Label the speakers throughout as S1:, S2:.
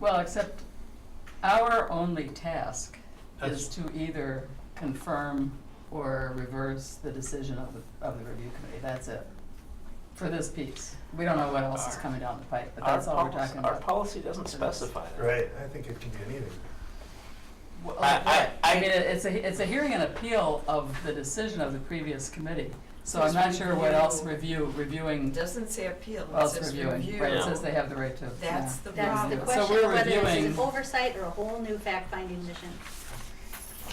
S1: Well, except our only task is
S2: That's-
S1: to either confirm or reverse the decision of the, of the review committee, that's it. For this piece, we don't know what else is
S3: Our-
S1: coming down the pipe, but
S3: Our
S1: that's all we're
S3: policy-
S1: talking
S3: Our
S1: about.
S3: policy doesn't specify that.
S2: Right, I think it can be anything.
S1: Well,
S3: I- I-
S1: right. I
S3: I-
S1: mean, it- it's a, it's a hearing and appeal of the decision of the previous committee, so I'm
S4: It's
S1: not sure what else
S4: review.
S1: review, reviewing,
S4: It doesn't say appeal, it
S1: else
S4: says
S1: reviewing,
S4: review.
S1: right, it
S3: Yeah.
S1: says they have the right to, yeah.
S4: That's the
S5: That's the
S4: problem.
S1: So
S5: question,
S1: we're
S5: whether this is
S1: reviewing.
S5: an oversight or a whole new fact-finding mission.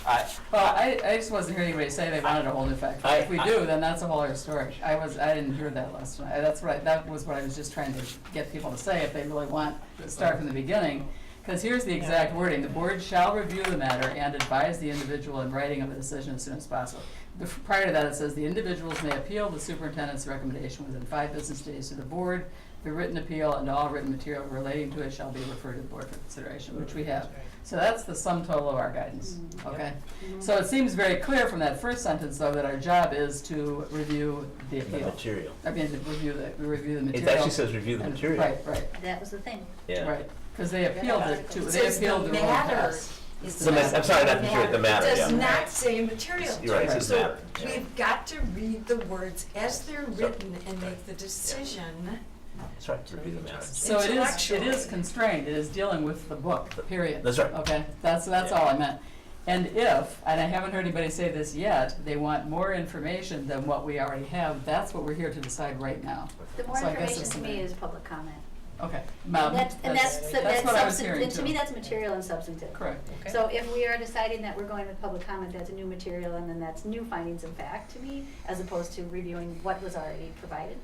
S3: I,
S1: Well, I, I just wasn't hearing anybody say they wanted a whole new fact.
S3: I-
S1: If we
S3: I-
S1: do, then that's a whole other story. I was, I didn't hear that last night. That's what, I- that was what I was just trying to get people to say, if they really want to start from the beginning. Because here's the exact wording, "The board shall review the matter and advise the individual in writing of a decision as soon as possible." The- Prior to that, it says, "The individuals may appeal the superintendent's recommendation within five business days to the board. The written appeal and all written material relating to it shall be referred to the board for consideration," which we have. So that's the sum total of our guidance, okay? So it seems very clear from that first sentence, though, that our job is to review the
S6: the
S1: appeal.
S6: material.
S1: I mean, to review the, we review the
S6: It
S1: material.
S6: actually says review the
S1: and-
S6: material.
S1: Right, right,
S5: That was the thing.
S6: Yeah.
S1: right. Because they appealed it to,
S4: It
S1: they
S4: says the
S1: appealed the ruling
S4: matter
S1: to us.
S4: is
S6: The ma-
S4: not-
S6: I'm sorry, not the material, the matter,
S4: Does
S6: yeah.
S4: not say material.
S6: You're right, it says
S4: So
S6: matter, yeah.
S4: We've got to read the words as they're
S6: Sorry.
S4: written and make the decision.
S6: That's right. Review the matter.
S1: So it is, it is
S4: Intellectually.
S1: constrained, it is dealing with the book, period.
S6: That's right.
S1: Okay, that's, that's
S6: Yeah.
S1: all I meant. And if, and I haven't heard anybody say this yet, they want more information than what we already have, that's what we're here to decide right now.
S5: The more
S1: So I guess
S5: information
S1: it's
S5: to
S1: something-
S5: me is public comment.
S1: Okay, Mom,
S5: And that's,
S1: that's,
S5: and that's, the-
S1: that's
S5: that's
S1: what I was
S5: substan-
S1: hearing
S5: and to
S1: too.
S5: me, that's material and substantive.
S1: Correct.
S5: So if we are deciding that we're going with public comment, that's a new material, and then that's new findings of fact to me, as opposed to reviewing what was already provided.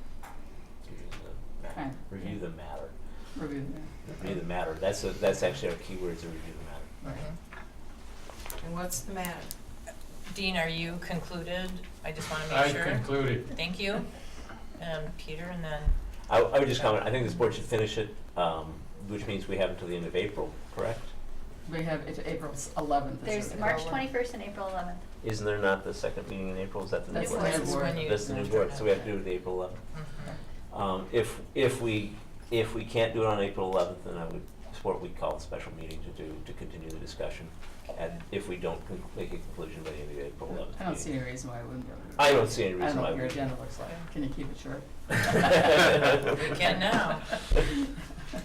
S1: Okay.
S6: Review the matter.
S1: Review
S6: Review the matter. That's a, that's actually our key word is to review the matter.
S1: that. Okay.
S4: And what's the matter?
S7: Dean, are you concluded? I just want to
S2: I
S7: make sure.
S2: concluded.
S7: Thank you. Um, Peter, and then,
S6: I, I would just comment. I think this board should finish it, um, which means we have until the end of April, correct?
S1: We have, it's April eleventh.
S5: There's March twenty-first and April eleventh.
S6: Isn't there not the second meeting in April? Is that the new
S1: That's
S6: board?
S1: the new board.
S7: when you-
S6: That's the new board. So we have to do it April eleventh.
S7: Mhm.
S6: Um, if, if we, if we can't do it on April eleventh, then I would support we call a special meeting to do, to continue the discussion. And if we don't con- make a conclusion by the end of April eleventh.
S1: I don't see any reason why I wouldn't be able to. do it.
S6: I don't see any
S1: I don't
S6: reason
S1: know
S6: why
S1: what your
S6: we.
S1: agenda looks like. Can you keep it short?
S7: We can now.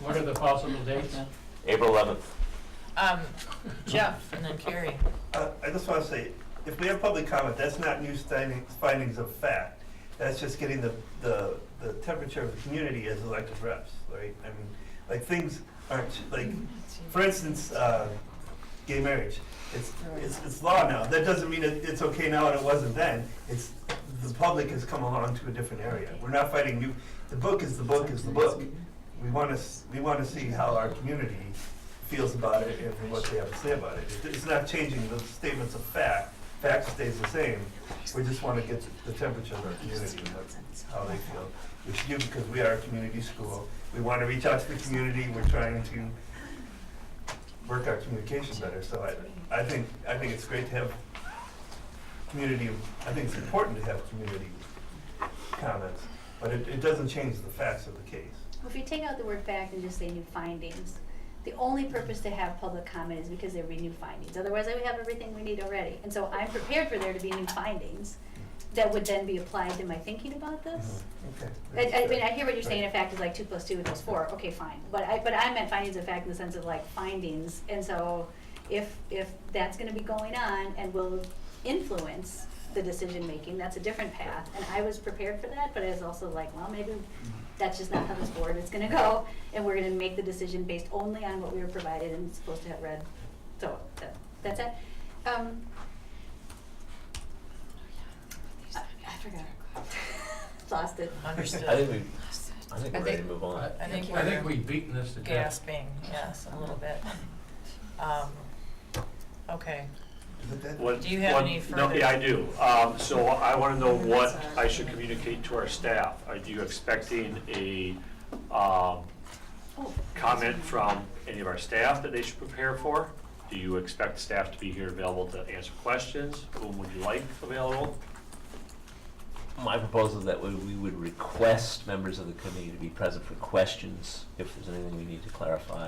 S2: What are the possible dates?
S1: Yeah.
S6: April eleventh.
S7: Um, Jeff, and then Carrie.
S8: Uh, I just want to say, if we have public comment, that's not new findings, findings of fact. That's just getting the, the, the temperature of the community as elected reps, right? I mean, like, things aren't, like, for instance, uh, gay marriage, it's, it's, it's law now. That doesn't mean it, it's okay now and it wasn't then. It's, the public has come along to a different area. We're not fighting new, the book is the book is the book. We want to, s- we want to see how our community feels about it and what they have to say about it. It- It's not changing the statements of fact, fact stays the same. We just want to get the temperature of our community, and that's how they feel. It's you, because we are a community school, we want to reach out to the community, we're trying to work our communication better, so I, I think, I think it's great to have community, I think it's important to have community comments, but it, it doesn't change the facts of the case.
S5: If you take out the word fact and just say new findings, the only purpose to have public comment is because there would be new findings. Otherwise, I would have everything we need already. And so I'm prepared for there to be new findings that would then be applied to my thinking about this.
S8: Oh, Okay.
S5: I, I mean, I hear what you're saying, a fact is like two plus two equals four, okay, fine, but I, but I meant findings of fact in the sense of like findings, and so if, if that's gonna be going on and will influence the decision-making, that's a different path, and I was prepared for that, but I was also like, well, maybe that's just not how this board is gonna go, and we're gonna make the decision based only on what we were provided and supposed to have read, so, that, that's it. Um, I, I forgot, lost it.
S6: I
S7: Understood.
S6: think we, I think
S7: I
S6: we're ready to
S7: think-
S6: move on.
S7: I think
S2: I think
S7: we're
S2: we've beaten this to death.
S7: gasping, yes, a little bit. Um, okay.
S8: But that-
S9: One-
S7: Do you have
S9: one-
S7: any
S9: No,
S7: further-
S9: yeah, I do. Um, So I want to know
S4: Mhm,
S9: what
S4: sorry.
S9: I should communicate to our staff. Are you expecting a um,
S5: Oh.
S9: comment from any of our staff that they should prepare for? Do you expect staff to be here available to answer questions? Whom would you like available?
S6: My proposal is that we, we would request members of the committee to be present for questions, if there's anything we need to clarify.